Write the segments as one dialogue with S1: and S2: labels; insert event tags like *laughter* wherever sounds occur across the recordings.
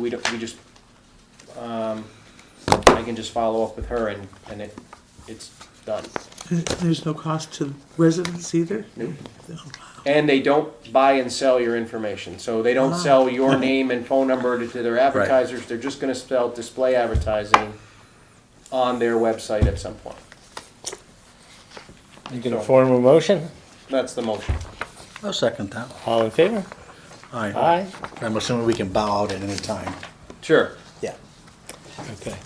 S1: We don't, we just, um, I can just follow up with her and, and it, it's done.
S2: And There's no cost to residents either?
S1: Nope.
S2: No.
S1: And they don't buy and sell your information, so they don't
S2: Ah.
S1: sell your name and phone number to, to their advertisers, they're just gonna sell display advertising on their website at some point.
S3: You can form a motion?
S1: That's the motion.
S4: I'll second that.
S3: All in favor?
S4: Aye.
S3: Aye.
S4: I'm assuming we can bow out at any time.
S1: Sure.
S4: Yeah.
S3: Okay.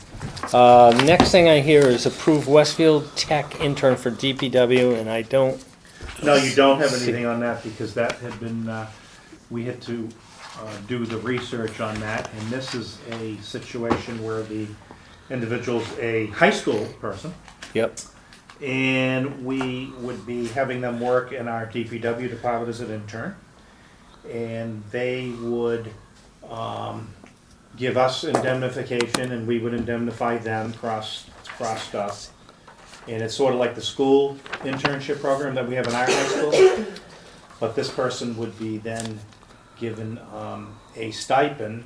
S3: Uh, next thing I hear is approve Westfield Tech intern for DPW, and I don't,
S5: No, you don't have anything on that because that had been, uh, we had to uh, do the research on that. And this is a situation where the individual's a high school person.
S3: yep,
S5: And we would be having them work in our DPW department as an intern. And they would um, give us indemnification and we would indemnify them, cross, crossed us. And it's sort of like the school internship program that we have in our high school. But this person would be then given um, a stipend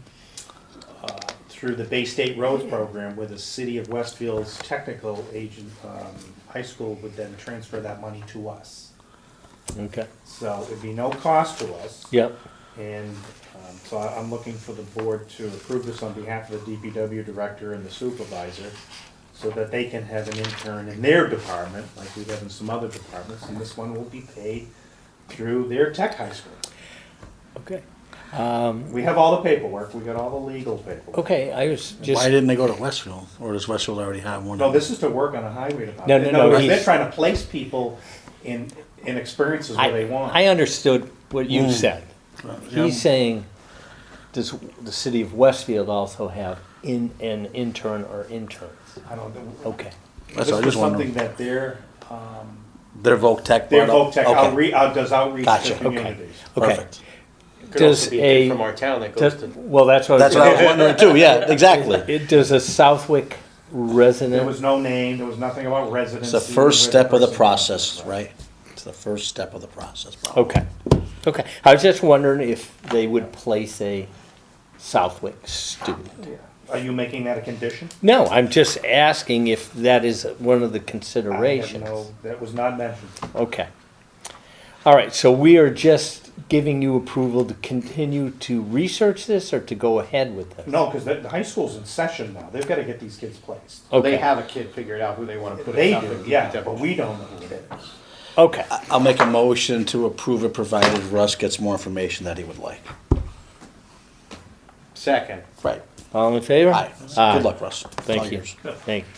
S5: uh, through the Bay State Roads Program, where the city of Westfield's technical agent, um, high school would then transfer that money to us.
S3: okay,
S5: So it'd be no cost to us.
S3: yep.
S5: And, um, so I, I'm looking for the board to approve this on behalf of the DPW director and the supervisor, so that they can have an intern in their department, like we have in some other departments, and this one will be paid through their tech high school.
S3: Okay.
S5: We have all the paperwork, we got all the legal paperwork.
S3: Um, Okay, I was just,
S4: Why didn't they go to Westfield? Or does Westfield already have one?
S5: No, this is to work on a highway department.
S3: No, no, no,
S5: They're
S3: he's-
S5: trying to place people in, in experiences where they
S3: I,
S5: want.
S3: I understood what you said.
S4: Mm. Yeah.
S3: He's saying, does the city of Westfield also have in, an intern or interns?
S5: I don't, know.
S3: Okay,
S4: That's what
S5: this
S4: Oh, I
S5: was
S4: just wondering.
S5: something that their, um,
S4: Their Voc Tech.
S5: their
S4: brought up?
S5: voc tech
S4: Okay.
S5: outreach, does outreach
S4: Gotcha,
S5: to
S4: okay.
S5: communities.
S3: okay.
S4: Perfect.
S1: Could also
S3: Does
S1: be a kid
S3: a-
S1: from our town that goes
S3: Does-
S1: to,
S3: Well, that's what.
S4: That's what I was wondering too,
S5: *laughs*
S4: yeah, exactly.
S3: It, does a Southwick
S5: There
S3: resident,
S5: was no name, there was nothing about residency.
S4: It's the first
S5: where
S4: step of the
S5: person-
S4: process, right? It's the first step of the process. probably.
S3: okay, okay. I was just wondering if they would place a Southwick student.
S5: Are you making that a condition?
S3: No, I'm just asking if that is one of the
S5: I have
S3: considerations.
S5: no- That was not mentioned.
S3: Okay. All right, so we are just giving you approval to continue to research this or to go ahead with this?
S5: No, because the, the high school's in session now, they've gotta get these kids placed.
S3: Okay.
S1: they have a kid figured out who they wanna put
S5: They
S1: in top
S5: do,
S1: of the
S5: yeah,
S1: DPW.
S5: but we don't know who it is.
S3: Okay,
S4: I'll make a motion to approve it provided Russ gets more information that he would like.
S1: Second.
S4: Right.
S3: all in favor?
S4: Aye.
S3: Aye.
S4: Good luck, Russ. It's all
S3: Thank you,
S4: yours.
S3: thank you.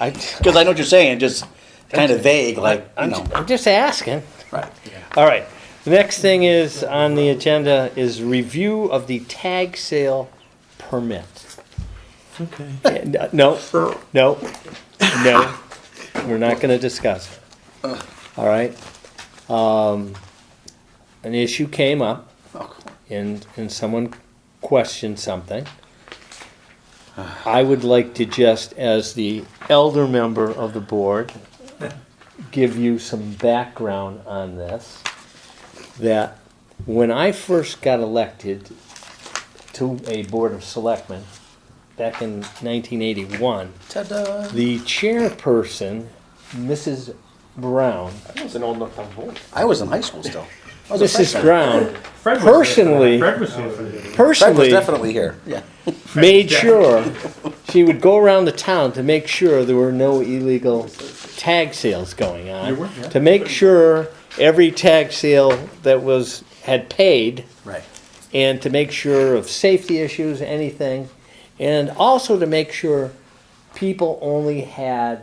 S3: I,
S4: Cause I know what you're saying, just kinda vague, like, you
S3: I'm,
S4: know,
S3: I'm just asking.
S4: right.
S3: All right, the next thing is on the agenda is review of the tag sale permit.
S2: Okay.
S3: And, uh, No, no, no, we're not gonna discuss it. All right? Um, An issue came up and, and someone questioned something. I would like to just, as the elder member of the board, give you some background on this. That when I first got elected to a board of selectmen back in 1981,
S4: Ta-da.
S3: the chairperson, Mrs. Brown,
S1: That was an old enough time vote.
S4: I was in high school still. I was a
S3: Mrs.
S4: freshman.
S3: Brown
S5: Fred was here for that.
S3: Personally-
S5: Fred was here for that.
S4: Fred was
S3: personally
S4: definitely here, yeah.
S3: made sure she would go around the town to make sure there were no illegal tag sales going on.
S5: There were, yeah.
S3: To make sure every tag sale that was had paid
S4: Right.
S3: and to make sure of safety issues, anything, and also to make sure people only had.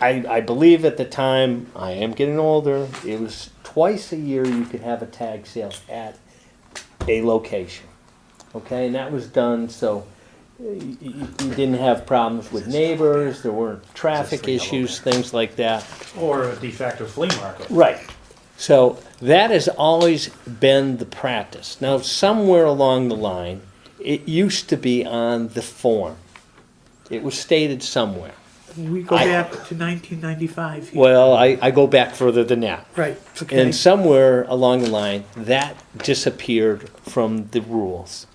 S3: I, I believe at the time, I am getting older, it was twice a year you could have a tag sale at a location. Okay, and that was done so you, you didn't have problems with neighbors, there weren't traffic
S4: yellow
S3: issues, things like that.
S5: Or a de facto flea market.
S3: Right. So that has always been the practice. Now, somewhere along the line, it used to be on the form. It was stated somewhere.
S2: We go
S3: I-
S2: back to 1995. here.
S3: Well, I, I go back further than that.
S2: Right, okay.
S3: And somewhere along the line, that disappeared from the rules.